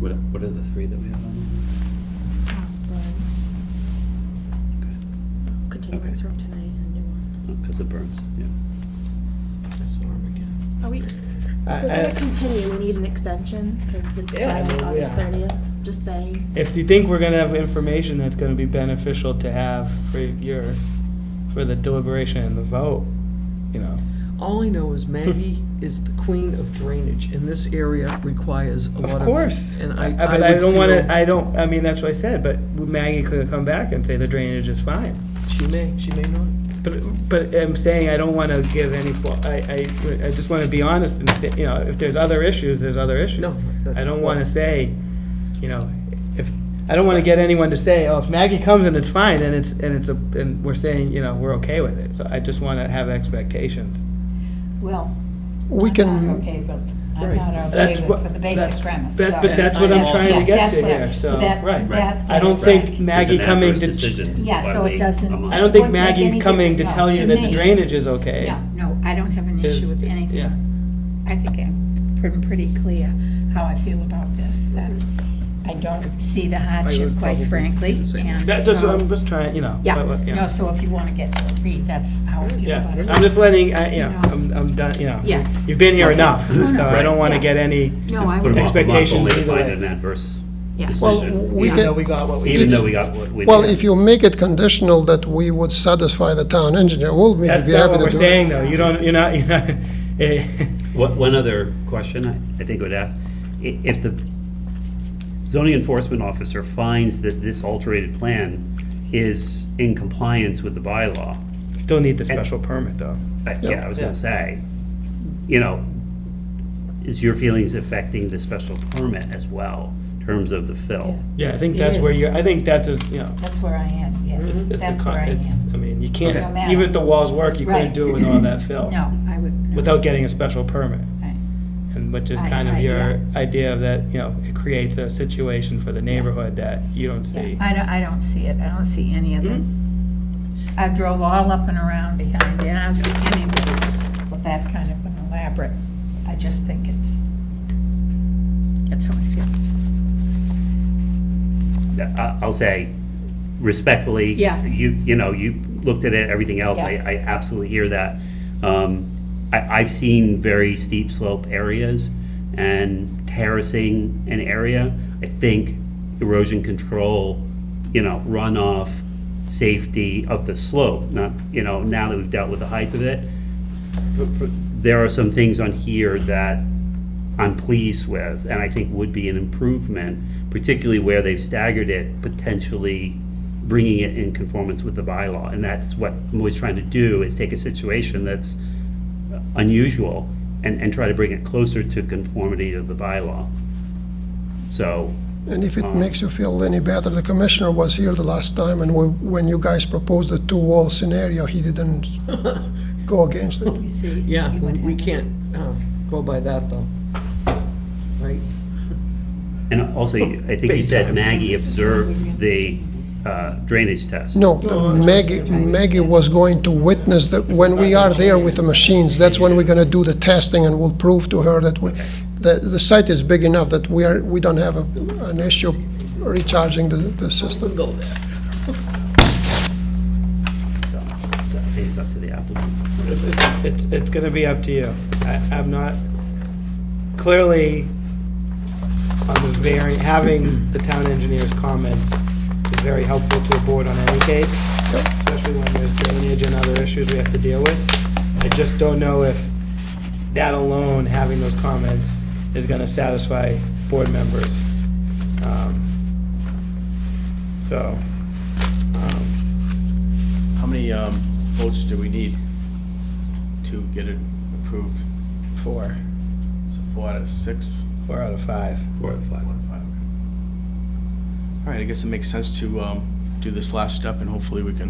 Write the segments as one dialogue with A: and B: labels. A: What, what are the three that we have on?
B: Continuance
A: Okay.
B: from tonight, a new one.
A: Because of Oh, burns, yeah.
C: That's Norm again.
B: Are we, we're
C: I-
B: gonna
C: I-
B: continue, we need an extension, because it
C: uh, Yeah, I
B: expires
C: mean,
B: August
C: yeah.
B: thirtieth, just saying.
C: If you think we're gonna have information that's gonna be beneficial to have for your, for the deliberation and the vote, you know,
D: All I know is Maggie is the queen of drainage, and this area requires a lot of.
C: of course.
D: And
C: I-
D: I,
C: I- But I
D: would
C: don't wanna,
D: feel-
C: I don't, I mean, that's what I said, but Maggie could come back and say the drainage is fine.
D: She may, she may not.
C: But, but I'm saying I don't wanna give any, fa- I, I, I just wanna be honest and say, you know, if there's other issues, there's other issues.
D: No. Uh,
C: I don't wanna say, you know, if, I don't wanna get anyone to say, oh, if Maggie comes and it's fine, then it's, and it's a, and we're saying, you know, we're okay with it. So I just wanna have expectations.
E: Well,
F: We
E: I'm
F: can,
E: okay, but
D: Right.
E: I'm not okay
C: That's
E: with
C: what-
E: for the
C: that's-
E: basic premise.
C: that-
E: so-
C: But that's what I'm
D: Yeah,
C: trying to get
E: that's
C: to
E: what I-
C: here, so,
E: that-
C: right.
E: that-
C: I don't think Maggie coming to,
E: Yeah, so it doesn't-
C: I don't think
E: Wouldn't make
C: Maggie
E: any
C: coming to
E: difference,
C: tell
E: no,
C: you
E: to
C: that the
E: me.
C: drainage is okay.
E: No, no, I don't have an issue
C: is-
E: with
C: Yeah.
E: anything. I think I'm pr- pretty clear how I feel about this, that I don't see the hardship, quite
D: probably
E: frankly,
D: do the same.
E: and
C: That- That's what I'm
E: so,
C: just trying, you know.
E: yeah,
C: but, uh, you know.
E: no, so if you want to get to agree, that's how I feel
C: Yeah,
E: about it.
C: I'm just letting, I, you know,
E: No.
C: I'm, I'm done, you know.
E: Yeah.
C: You've been here enough, so I don't wanna
E: Right.
C: get any,
E: No, I
A: Put
E: would,
A: them off a month
C: Expectations
A: only to
C: either
A: find
C: way.
A: an adverse
E: Yeah.
F: well,
A: decision,
F: we
C: even though we
F: can,
C: got what we.
A: even though we got what we did.
F: well, if you make it conditional that we would satisfy the town engineer, we'll be be happy
C: That's
F: to do it.
C: not what we're saying, though, you don't, you're not, you're not, eh,
A: What, one other question I, I think I would ask, i- if the zoning enforcement officer finds that this alterated plan is in compliance with the bylaw,
C: still need the special permit, though.
A: I- yeah, I was gonna say, you know, is your feelings affecting the special permit as well, in terms of the fill?
C: Yeah, I think that's where
E: is.
C: you're, I think that's, a you know.
E: that's where I am, yes,
C: Mm-hmm. it's a
E: that's
C: con-
E: where I
C: it's-
E: am.
C: I mean, you
A: No
C: can't,
E: matter.
C: even if the walls work, you couldn't
E: Right.
C: do it with all that fill.
E: No, I would. no,
C: Without getting a special permit,
E: I-
C: and which is
E: I-
C: kind of
E: I-
C: your idea of that, you know, it creates a situation for the neighborhood that you don't see.
E: I don't, I don't see it, I don't see any of them.
D: Hmm?
E: I drove all up and around behind it, I don't see anybody with that kind of an elaborate, I just think it's, that's how I feel.
A: I- I'll say respectfully.
E: Yeah.
A: You, you know, you looked at it, everything else, I,
E: Yeah.
A: I absolutely hear that. Um, I, I've seen very steep slope areas and terracing an area. I think erosion control, you know, runoff, safety of the slope, not, you know, now that we've dealt with the height of it, for- for- there are some things on here that I'm pleased with, and I think would be an improvement, particularly where they've staggered it, potentially bringing it in conformance with the bylaw. And that's what I'm always trying to do, is take a situation that's unusual and, and try to bring it closer to conformity of the bylaw. So,
F: And if
C: Uh-huh.
F: it makes you feel any better, the commissioner was here the last time, and we- when you guys proposed the two-wall scenario, he didn't go against it.
E: You see?
D: Yeah, we
E: you wouldn't
D: we
E: have it.
D: can't uh, go by that, though. Right?
A: and also, you- I think you
D: Big
A: said
D: time.
A: Maggie observed the uh, drainage test.
F: No, the Maggie, Maggie was going to witness that, when we are there with the machines, that's when we're gonna do the testing, and we'll prove to her that we, the, the site is big enough that we are, we don't have a- an issue recharging the, the system.
D: Go there.
A: So, I think it's up to the applicant.
C: It's, it's- it's, it's gonna be up to you. I, I'm not, clearly, on the varying, having the town engineer's comments is very helpful to a board on any case, especially when there's drainage and other issues we have to deal with. I just don't know if that alone, having those comments, is gonna satisfy board members. Um, So, um,
G: How many um, votes do we need to get it approved?
C: four,
G: So four out of six?
C: four out of five.
A: Four or five.
G: Four out of five, okay. All right, I guess it makes sense to um, do this last step, and hopefully we can,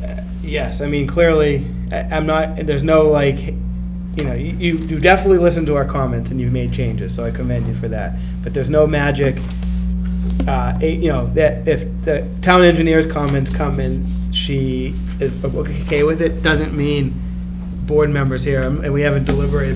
G: you know,
C: Yes, I mean, clearly, I- I'm not, there's no like, you know, you, you you definitely listened to our comments and you've made changes, so I commend you for that. But there's no magic, uh, eh, you know, that if the town engineer's comments come and she is okay with it, doesn't mean board members here, um, and we haven't deliberated